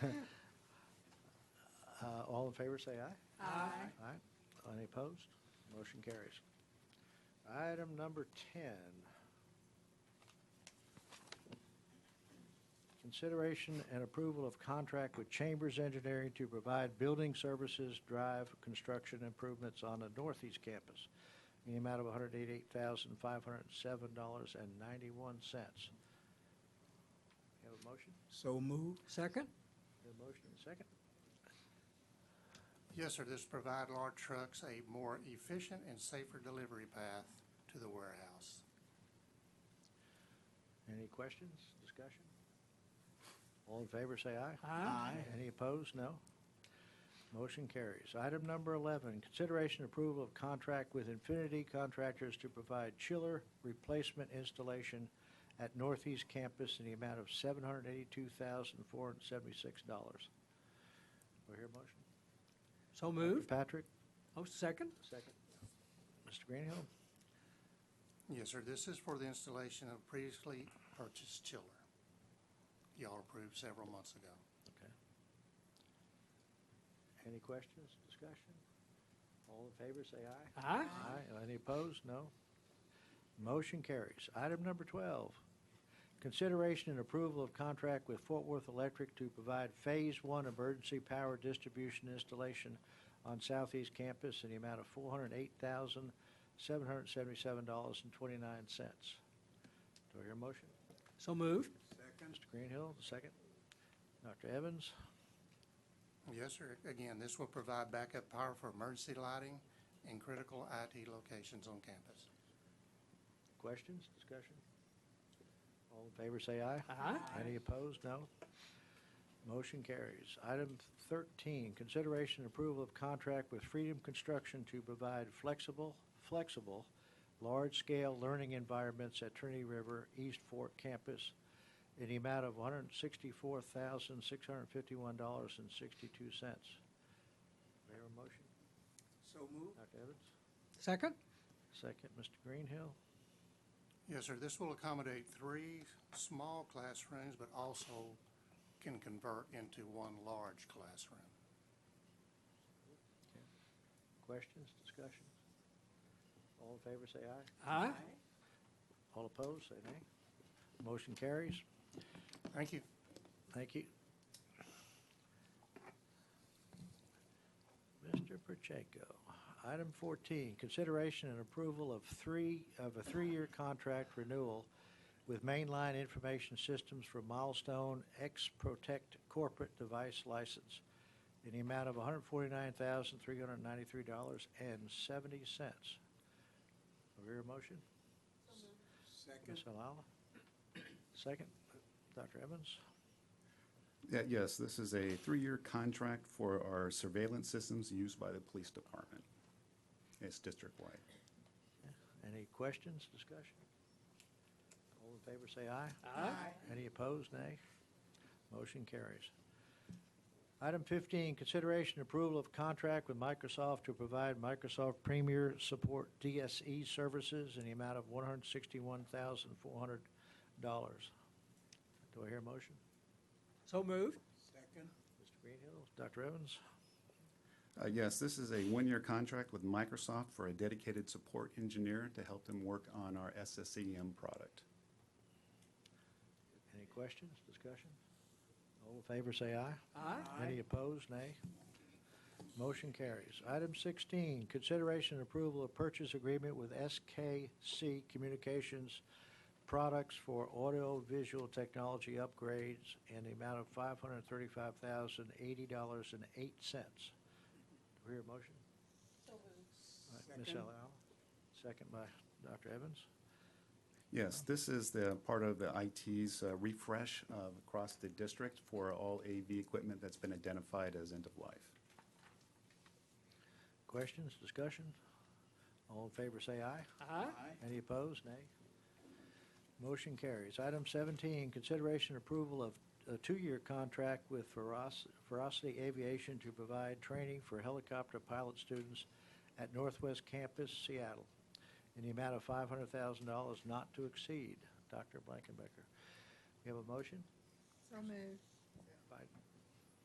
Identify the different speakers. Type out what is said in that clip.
Speaker 1: Uh, in favor, say aye.
Speaker 2: Aye.
Speaker 1: Aye. Any opposed? Motion carries. Item number 10. Consideration and approval of contract with Chambers Engineering to provide building services, drive construction improvements on the Northeast Campus in the amount of $188,507.91. Have a motion?
Speaker 3: So moved.
Speaker 2: Second?
Speaker 1: Have a motion and a second?
Speaker 4: Yes, sir, this provide large trucks a more efficient and safer delivery path to the warehouse.
Speaker 1: Any questions, discussion? All in favor, say aye.
Speaker 2: Aye.
Speaker 1: Any opposed? No. Motion carries. Item number 11, consideration approval of contract with Infinity Contractors to provide chiller replacement installation at Northeast Campus in the amount of $782,476. Do I hear a motion?
Speaker 2: So moved.
Speaker 1: Patrick,
Speaker 2: Oh, second?
Speaker 1: second. Mr. Greenhill?
Speaker 4: Yes, sir, this is for the installation of previously purchased chiller. Y'all approved several months ago.
Speaker 1: Okay. Any questions, discussion? All in favor, say aye.
Speaker 2: Aye.
Speaker 1: Aye. Any opposed? No. Motion carries. Item number 12, consideration and approval of contract with Fort Worth Electric to provide Phase 1 emergency power distribution installation on Southeast Campus in the amount of $408,777.29. Do I hear a motion?
Speaker 2: So moved.
Speaker 3: Second.
Speaker 1: Mr. Greenhill, second. Dr. Evans?
Speaker 4: Yes, sir, again, this will provide backup power for emergency lighting and critical IT locations on campus.
Speaker 1: Questions, discussion? All in favor, say aye.
Speaker 2: Aye.
Speaker 1: Any opposed? No. Motion carries. Item 13, consideration and approval of contract with Freedom Construction to provide flexible, flexible, large-scale learning environments at Trinity River East Fork Campus in the amount of $164,651.62. Do I hear a motion?
Speaker 3: So moved.
Speaker 1: Dr. Evans?
Speaker 2: Second?
Speaker 1: Second, Mr. Greenhill.
Speaker 4: Yes, sir, this will accommodate three small classrooms, but also can convert into one large classroom.
Speaker 1: Questions, discussions? All in favor, say aye.
Speaker 2: Aye.
Speaker 1: All opposed, say nay. Motion carries.
Speaker 4: Thank you.
Speaker 1: Thank you. Mr. Pacheco, item 14, consideration and approval of three, of a three-year contract renewal with Mainline Information Systems for Milestone X Protect Corporate Device License in the amount of $149,393.70. Do I hear a motion? Ms.
Speaker 3: Second.
Speaker 1: Alala? Second, Dr. Evans?
Speaker 5: Yeah, Yes, this is a three-year contract for our surveillance systems used by the police department. It's district-wide.
Speaker 1: Any questions, discussion? All in favor, say aye.
Speaker 2: Aye.
Speaker 1: Any opposed, nay? Motion carries. Item 15, consideration and approval of contract with Microsoft to provide Microsoft Premier Support DSE services in the amount of $161,400. Do I hear a motion?
Speaker 2: So moved.
Speaker 3: Second.
Speaker 1: Mr. Greenhill, Dr. Evans?
Speaker 5: Uh, Yes, this is a one-year contract with Microsoft for a dedicated support engineer to help them work on our SSEM product.
Speaker 1: Any questions, discussion? All in favor, say aye.
Speaker 2: Aye.
Speaker 1: Any opposed, nay? Motion carries. Item 16, consideration and approval of purchase agreement with SKC Communications Products for audio-visual technology upgrades in the amount of $535,080.08. Do we hear a motion? All right, Ms.
Speaker 3: Second.
Speaker 1: Al, second by Dr. Evans.
Speaker 5: Yes, this is the part of the IT's uh, refresh uh, across the district for all AV equipment that's been identified as end-of-life.
Speaker 1: Questions, discussion? All in favor, say aye.
Speaker 2: Aye.
Speaker 3: Aye.
Speaker 1: Any opposed? Nay. Motion carries. Item 17, consideration approval of a two-year contract with Veros- Verocity Aviation to provide training for helicopter pilot students at Northwest Campus, Seattle, in the amount of $500,000 not to exceed. Dr. Blankenbecker, we have a motion?
Speaker 6: So moved.